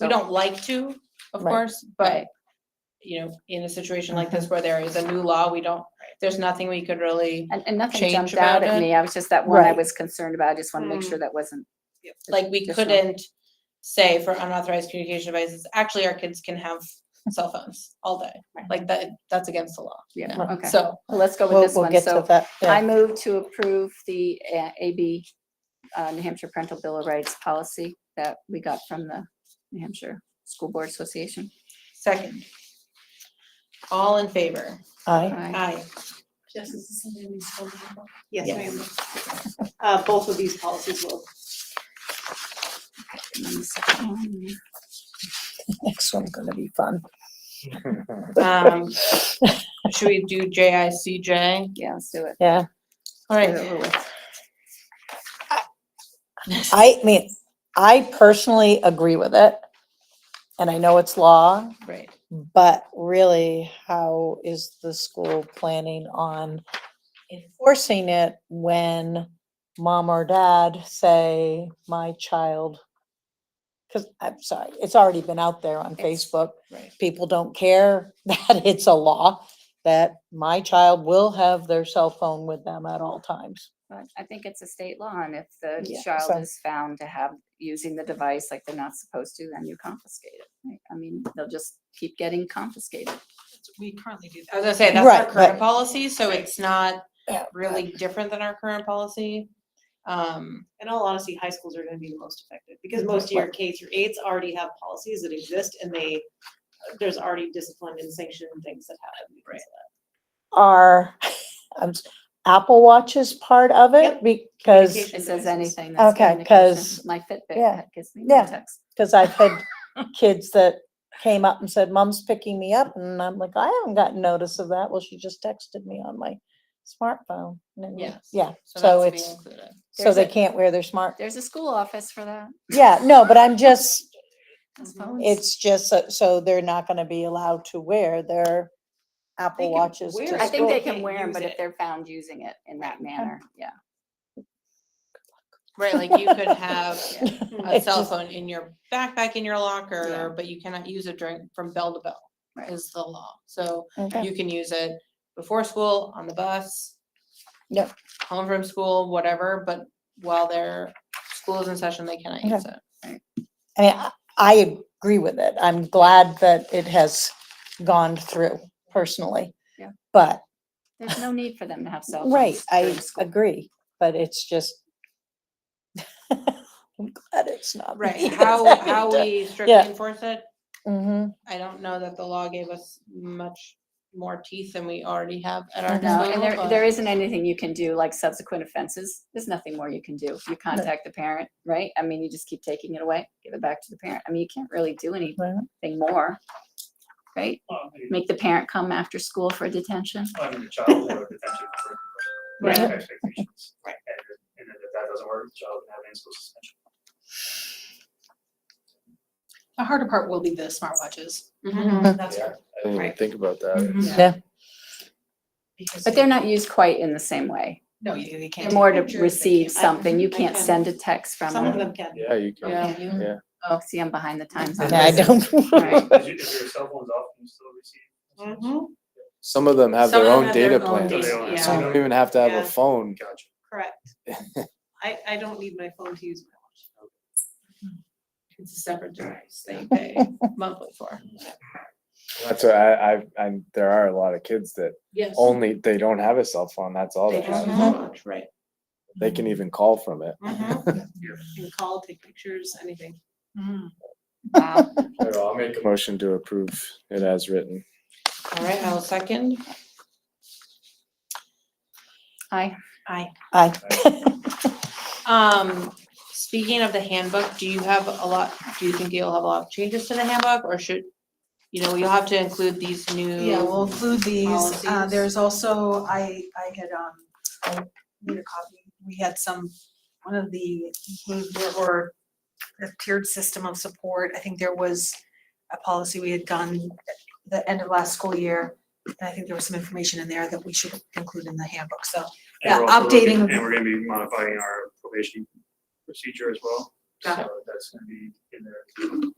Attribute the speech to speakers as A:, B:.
A: We don't like to, of
B: Right,
A: course, but, you know, in a situation like
C: Uh-huh.
A: this where there is a new law, we don't, there's nothing we could really,
C: And, and nothing
A: change
C: jumped out
A: about it. Mm.
C: at me. I was just that one I
B: Right.
C: was concerned about. I just want to make sure that wasn't.
A: like, we
C: additional.
A: couldn't say for unauthorized communication devices, actually, our kids can have cell phones all day.
C: Right.
A: Like, that, that's against the law.
C: Yeah,
B: Right.
C: okay.
A: So,
C: Well, let's go with
B: We'll,
C: this
B: we'll
C: one.
B: get to
C: So
B: that. yeah.
C: I move to approve the uh, AB, uh, New Hampshire Parental Bill of Rights policy that we got from the New Hampshire School Board Association.
A: second. All in favor?
B: Aye.
C: Aye.
A: Aye.
D: Yes, this is something we still need.
A: Yes.
D: Yes, ma'am. Uh, both of these policies will,
C: And then the second one,
B: Next one's gonna be fun.
A: Um, should we do JICJ?
C: Yeah, let's do it.
B: Yeah,
A: All
C: Get it
A: right,
C: over with.
B: I mean, I personally agree with it. And I know it's law,
A: right.
B: but really, how is the school planning on enforcing it when mom or dad say, my child? Because I'm sorry, it's already been out there on
C: It's-
B: Facebook.
A: right.
B: People don't care that it's a law, that my child will have their cell phone with them at all times.
C: But I think it's a state law and if the
B: Yeah, so-
C: child is found to have, using the device like they're not supposed to, then you confiscate it. right? I mean, they'll just keep getting confiscated.
D: we currently do
A: I was
D: that.
A: gonna say, that's our
B: Right,
A: current
B: but-
A: policy, so it's not
B: Yeah, but-
A: really different than our current policy. Um,
D: In all honesty, high schools are gonna be the most affected, because most of your K through eights already have policies that exist, and they, there's already discipline and sanction and things that happen. because of
B: Are, um, Apple Watch is part of it
D: Yep,
B: because,
D: communication.
C: It says
D: devices.
C: anything. that's
B: Okay,
C: communication.
B: 'cause-
C: My Fitbit
B: yeah,
C: that gives me
B: yeah.
C: no text.
B: because I've had kids that came up and said, mom's picking me up. And I'm like, I haven't gotten notice of that. Well, she just texted me on my smartphone. And then,
A: Yes.
B: Yeah, so
A: so that's being
B: it's,
A: included.
B: so
C: There's
B: they
C: a-
B: can't wear their smart,
C: There's a school office for that.
B: yeah, no, but I'm just,
C: those
A: Mhm.
C: phones.
B: It's just so, so they're not gonna be allowed to wear their Apple
D: can
B: Watches to
D: wear
B: school.
D: it.
C: I think they
D: school
C: can
D: can't
C: wear them,
D: use
C: but if
D: it.
C: they're found using it in that manner, yeah.
A: Right, like you could have a
B: It's
A: cell
B: just-
A: phone in your backpack, in your locker, but you cannot use it during, from bell to bell
C: Right.
A: is the law. So
B: Okay.
A: you can use it before school, on the bus.
B: Yep.
A: Home from school, whatever, but while their school is in session, they cannot
B: Okay.
A: use it.
B: I mean, I- I agree with it. I'm glad that it has gone through personally.
C: Yeah.
B: But,
C: There's no need for them to have cell phones.
B: right, I
C: during school.
B: agree, but it's just. I'm glad it's not.
A: Right, how, how we strictly
B: Yeah.
A: enforce it,
B: Mm-hmm,
A: I don't know that the law gave us much more teeth than we already have at our
C: No,
A: disposal.
C: and there,
A: but-
C: there isn't anything you can do, like subsequent offenses, there's nothing more you can do. You contact the parent, right? I mean, you just keep taking it away, give it back to the parent. I mean, you can't really do
B: Right.
C: anything more, right?
E: Well, I mean,
C: Make the parent come after school for detention.
E: I mean, the child will have detention for
A: Right.
E: lack of expectations.
D: Right.
E: And then- and then if that doesn't work, the child can have in-school suspension.
F: The harder part will be the smartwatches.
A: Mhm.
D: Mm-hmm.
F: That's
G: Yeah, I didn't even
F: Right.
G: think about that.
F: because
C: But they're not used quite in the same way.
F: No, you you can't.
C: They're
F: take
C: more to
F: pictures, they
C: receive
F: can't-
C: something. You
D: I
C: can't
D: can-
C: send a text from
D: Some of
C: them.
D: them can.
G: Yeah, you can.
F: Yeah, you-
G: Yeah.
C: Oh, see, I'm behind the times on
B: Yeah, I
C: this. Right.
B: don't.
E: If you- if your cell phone's off, you still receive.
D: Mhm,
G: Some of them have
D: Some
G: their
D: of
G: own
D: them have their
G: data
D: own
G: plans.
E: So they
D: data,
E: don't
D: yeah.
E: have-
G: Some
E: they don't-
G: don't even have to have
D: Yeah.
G: a phone.
E: Gotcha.
D: Correct. I, I don't need my phone to use my watch.
A: It's a separate device they pay monthly for.
G: That's what I, I, I, there are a lot of kids that
A: Yes.
G: only, they don't have a cell phone. That's all
A: They
G: they
A: just
G: have.
A: watch, right.
G: They can even call from it.
D: Mhm. You can call, take pictures, anything.
F: Mm.
C: Wow.
G: So I'll make a motion to approve it as written.
A: All right, I'll second.
C: Hi.
A: Aye.
B: I-
A: Um, speaking of the handbook, do you have a lot, do you think you'll have a lot of changes to the handbook or should, you know, you'll have to include these new?
F: Yeah, we'll include these. Uh,
A: Policies.
F: there's also, I, I had, um, I need a copy. We had some, one of the behavior or the tiered system of support. I think there was a policy we had done at the end of last school year. And I think there was some information in there that we should include in the handbook. So
E: And
F: Yeah,
E: we're also looking-
F: updating-
E: And we're gonna be modifying our probation procedure as well. So that's gonna be in there.